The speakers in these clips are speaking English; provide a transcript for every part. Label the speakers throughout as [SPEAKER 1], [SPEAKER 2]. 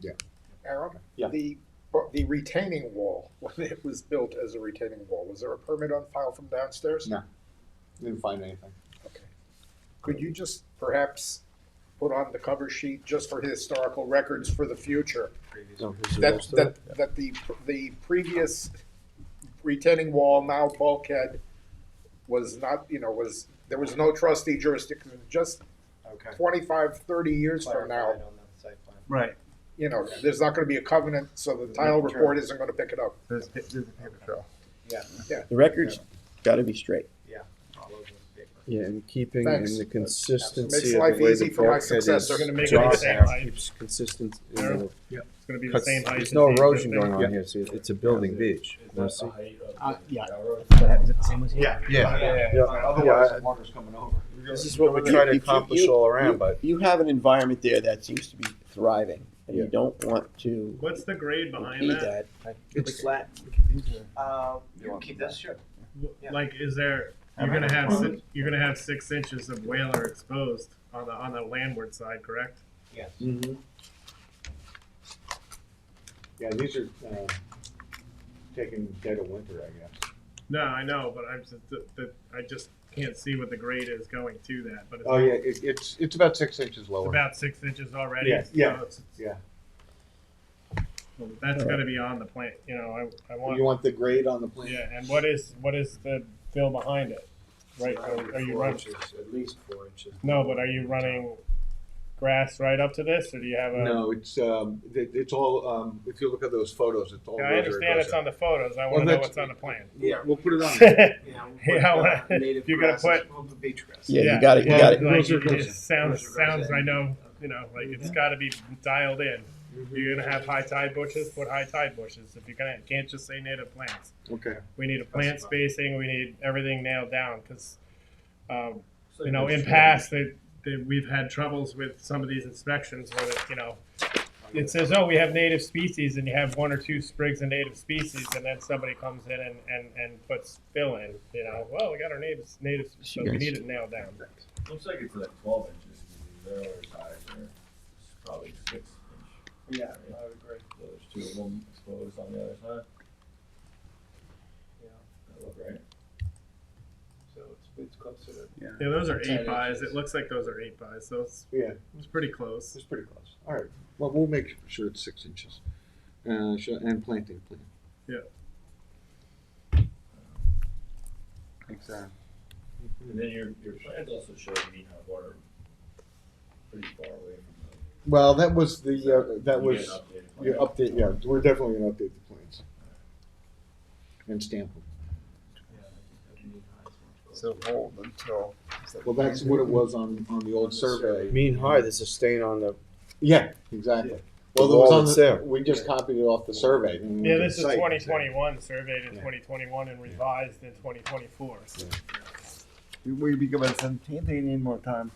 [SPEAKER 1] Yeah.
[SPEAKER 2] Aaron?
[SPEAKER 3] Yeah.
[SPEAKER 2] The, the retaining wall, when it was built as a retaining wall, was there a permit on file from downstairs?
[SPEAKER 1] No. Didn't find anything.
[SPEAKER 2] Okay. Could you just perhaps put on the cover sheet, just for historical records for the future, that, that, that the, the previous retaining wall, now bulkhead, was not, you know, was, there was no trustee jurisdiction, just
[SPEAKER 4] Okay.
[SPEAKER 2] twenty-five, thirty years from now,
[SPEAKER 4] Clarified on the site plan.
[SPEAKER 5] Right,
[SPEAKER 2] you know, there's not gonna be a covenant, so the title report isn't gonna pick it up.
[SPEAKER 5] there's, there's a paper trail.
[SPEAKER 6] The record's gotta be straight.
[SPEAKER 4] All over the paper.
[SPEAKER 7] Yeah, and keeping
[SPEAKER 2] Thanks.
[SPEAKER 7] in the
[SPEAKER 2] Makes
[SPEAKER 7] consistency of
[SPEAKER 2] life
[SPEAKER 7] the way
[SPEAKER 2] easy
[SPEAKER 7] the
[SPEAKER 2] for my
[SPEAKER 7] bulkhead is.
[SPEAKER 2] successor. They're
[SPEAKER 8] gonna make it the
[SPEAKER 7] drawn
[SPEAKER 8] same
[SPEAKER 7] now,
[SPEAKER 8] height.
[SPEAKER 7] Keeps consistent, you
[SPEAKER 8] Yeah.
[SPEAKER 7] know,
[SPEAKER 8] It's gonna be the
[SPEAKER 7] cuts-
[SPEAKER 8] same height.
[SPEAKER 7] there's
[SPEAKER 8] as
[SPEAKER 7] no
[SPEAKER 8] the
[SPEAKER 7] erosion
[SPEAKER 8] existing.
[SPEAKER 7] going on here, so it's a building beach.
[SPEAKER 4] Is
[SPEAKER 7] You
[SPEAKER 4] that
[SPEAKER 7] see?
[SPEAKER 4] the height of
[SPEAKER 5] Uh,
[SPEAKER 4] the
[SPEAKER 5] yeah.
[SPEAKER 4] railroad?
[SPEAKER 5] Yeah.
[SPEAKER 7] Yeah,
[SPEAKER 4] Yeah,
[SPEAKER 7] Yeah.
[SPEAKER 4] fine, otherwise
[SPEAKER 7] Yeah.
[SPEAKER 4] the water's coming over.
[SPEAKER 7] this is what we
[SPEAKER 6] You-
[SPEAKER 7] try to
[SPEAKER 6] if you-
[SPEAKER 7] accomplish
[SPEAKER 6] you-
[SPEAKER 7] all around,
[SPEAKER 6] you-
[SPEAKER 7] but
[SPEAKER 6] You have an environment there that seems to be thriving, and you don't want to
[SPEAKER 8] What's the grade behind
[SPEAKER 6] impede
[SPEAKER 8] that?
[SPEAKER 6] that.
[SPEAKER 5] It's
[SPEAKER 4] flat. Uh,
[SPEAKER 3] You
[SPEAKER 4] you
[SPEAKER 3] want
[SPEAKER 4] keep this, sure. Yeah.
[SPEAKER 8] Like, is there,
[SPEAKER 7] Am
[SPEAKER 8] you're
[SPEAKER 7] I
[SPEAKER 8] gonna have,
[SPEAKER 7] wrong?
[SPEAKER 8] si- you're gonna have six inches of whaler exposed on the, on the landward side, correct?
[SPEAKER 4] Yes.
[SPEAKER 8] Mm-hmm.
[SPEAKER 3] Yeah, these are, uh, taken dead of winter, I guess.
[SPEAKER 8] No, I know, but I'm just, the, the, I just can't see what the grade is going to that, but it's,
[SPEAKER 3] Oh, yeah, it, it's, it's about six inches
[SPEAKER 8] it's
[SPEAKER 3] lower.
[SPEAKER 8] about six inches already.
[SPEAKER 3] Yeah,
[SPEAKER 8] so
[SPEAKER 3] yeah,
[SPEAKER 8] it's-
[SPEAKER 3] yeah.
[SPEAKER 8] Well, That's gonna be on the plant, you know, I, I want,
[SPEAKER 7] you want the grade on the plan.
[SPEAKER 8] yeah, and what is, what is the fill behind it? Right, are are you
[SPEAKER 4] Four
[SPEAKER 8] running,
[SPEAKER 4] inches, At least four inches.
[SPEAKER 8] no, but are you running grass right up to this, or do you have a?
[SPEAKER 3] No, it's, um, it, it's all, um, if you look at those photos, it's all.
[SPEAKER 8] Yeah, I
[SPEAKER 3] rotary
[SPEAKER 8] understand it's
[SPEAKER 3] dorsal.
[SPEAKER 8] on the photos. I
[SPEAKER 3] Well,
[SPEAKER 8] want to know
[SPEAKER 3] that's-
[SPEAKER 8] what's on the plan.
[SPEAKER 3] Yeah, we'll put it on.
[SPEAKER 4] Yeah, we'll
[SPEAKER 8] Yeah,
[SPEAKER 4] put, uh,
[SPEAKER 8] well,
[SPEAKER 4] native
[SPEAKER 8] you're gonna
[SPEAKER 4] grasses, well, the beach grass.
[SPEAKER 6] Yeah, you gotta, you
[SPEAKER 8] well,
[SPEAKER 6] gotta,
[SPEAKER 8] Like,
[SPEAKER 3] Those are- Mm-hmm.
[SPEAKER 8] it,
[SPEAKER 3] those
[SPEAKER 8] it sounds
[SPEAKER 4] those are
[SPEAKER 8] sounds.
[SPEAKER 4] rosé.
[SPEAKER 8] I know. You know, like it's got to be dialed in.
[SPEAKER 4] Mm-hmm.
[SPEAKER 8] You're gonna have high tide bushes. Put high tide bushes. If you're gonna can't just say native plants.
[SPEAKER 3] Okay.
[SPEAKER 8] We need a plant spacing. We need everything nailed down because, um,
[SPEAKER 4] So
[SPEAKER 8] you know, in
[SPEAKER 4] it's-
[SPEAKER 8] past they, they, we've had troubles with some of these inspections where the, you know it says, oh, we have native species, and you have one or two sprigs of native species, and then somebody comes in and, and, and puts fill in, you know, well, we got our native, native, so we need it nailed down.
[SPEAKER 9] Looks like it's like twelve inches, the railroad ties are probably six inch,
[SPEAKER 4] Yeah, I would agree,
[SPEAKER 9] so there's two of them exposed on the other side,
[SPEAKER 4] yeah,
[SPEAKER 9] that look right.
[SPEAKER 4] so it's, it's closer to.
[SPEAKER 8] Yeah, those are
[SPEAKER 4] Ten
[SPEAKER 8] eight buys,
[SPEAKER 4] inches.
[SPEAKER 8] it looks like those are eight buys, so it's,
[SPEAKER 3] Yeah,
[SPEAKER 8] it's pretty close.
[SPEAKER 3] it's pretty close. All right. Well, we'll make sure it's six inches. Uh, sure, and planting plan.
[SPEAKER 8] Yeah.
[SPEAKER 3] Exactly.
[SPEAKER 9] And then your, your plans also show you need hot water pretty far away from
[SPEAKER 3] Well, that was the, uh,
[SPEAKER 9] the.
[SPEAKER 3] that
[SPEAKER 9] You get
[SPEAKER 3] was,
[SPEAKER 9] an updated plan.
[SPEAKER 3] your update, yeah, we're definitely gonna update the plans. And stamp them.
[SPEAKER 2] So hold until.
[SPEAKER 3] Well, that's what it was on, on the old survey.
[SPEAKER 7] Mean high, there's a stain on the
[SPEAKER 3] Yeah, exactly.
[SPEAKER 7] The
[SPEAKER 3] Well, there was
[SPEAKER 7] wall
[SPEAKER 3] on
[SPEAKER 7] that's
[SPEAKER 3] the,
[SPEAKER 7] there.
[SPEAKER 3] we just copied it off the survey. and we
[SPEAKER 8] Yeah,
[SPEAKER 3] did
[SPEAKER 8] this is
[SPEAKER 3] site.
[SPEAKER 8] twenty twenty-one, surveyed in
[SPEAKER 3] Yeah.
[SPEAKER 8] twenty twenty-one and revised in twenty twenty-four, so.
[SPEAKER 5] We be given some, they need more time.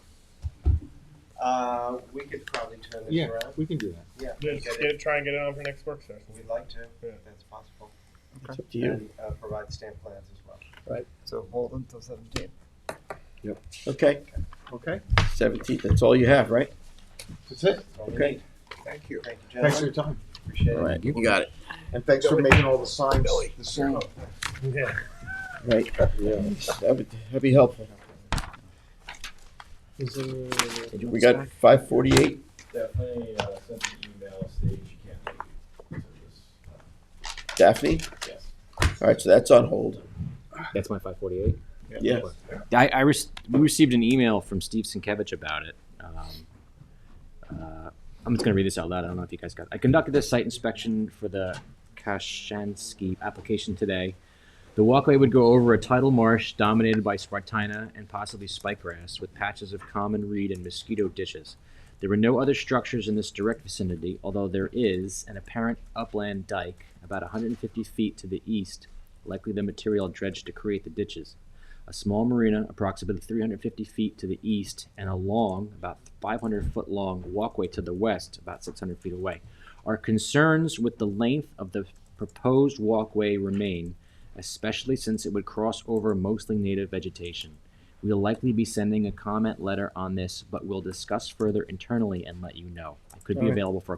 [SPEAKER 4] Uh, we could probably turn
[SPEAKER 3] Yeah,
[SPEAKER 4] this around,
[SPEAKER 3] we can do that.
[SPEAKER 4] yeah.
[SPEAKER 8] Just
[SPEAKER 4] get it.
[SPEAKER 8] get, it- try and get it on for next work session.
[SPEAKER 4] We'd like to,
[SPEAKER 8] Yeah.
[SPEAKER 4] if that's possible,
[SPEAKER 6] it's up to you.
[SPEAKER 4] and, uh, provide stamp plans as well.
[SPEAKER 5] So hold until seventeen.
[SPEAKER 6] Okay,
[SPEAKER 3] Okay.
[SPEAKER 6] seventeenth, that's all you have, right?
[SPEAKER 3] That's it.
[SPEAKER 4] That's all we
[SPEAKER 6] Okay.
[SPEAKER 4] need.
[SPEAKER 2] Thank you.
[SPEAKER 4] Thank you,
[SPEAKER 3] Thanks
[SPEAKER 4] gentlemen,
[SPEAKER 3] for your time.
[SPEAKER 4] appreciate
[SPEAKER 6] All
[SPEAKER 4] it.
[SPEAKER 6] right, you got it.
[SPEAKER 3] And thanks for making all the signs. The sign.
[SPEAKER 8] Yeah.
[SPEAKER 6] Right, that would, that'd be helpful. We got five forty-eight,
[SPEAKER 9] Definitely, uh, send an email, stage you can't make it, so just, uh,
[SPEAKER 6] Daphne?
[SPEAKER 9] yes.
[SPEAKER 6] All right, so that's on hold.
[SPEAKER 10] That's my 548.
[SPEAKER 6] Yeah.
[SPEAKER 10] I, I re- we received an email from Steve Sienkiewicz about it. Um, uh, I'm just going to read this out loud. I don't know if you guys got. I conducted this site inspection for the Kashansky application today. The walkway would go over a tidal marsh dominated by spartina and possibly spikegrass, with patches of common reed and mosquito ditches. There were no other structures in this direct vicinity, although there is an apparent upland dike about 150 feet to the east, likely the material dredged to create the ditches a small marina approximately 350 feet to the east, and a long, about 500 foot long walkway to the west, about 600 feet away. Our concerns with the length of the proposed walkway remain, especially since it would cross over mostly native vegetation. We'll likely be sending a comment letter on this, but we'll discuss further internally and let you know. I could be
[SPEAKER 6] Alright.
[SPEAKER 10] available for a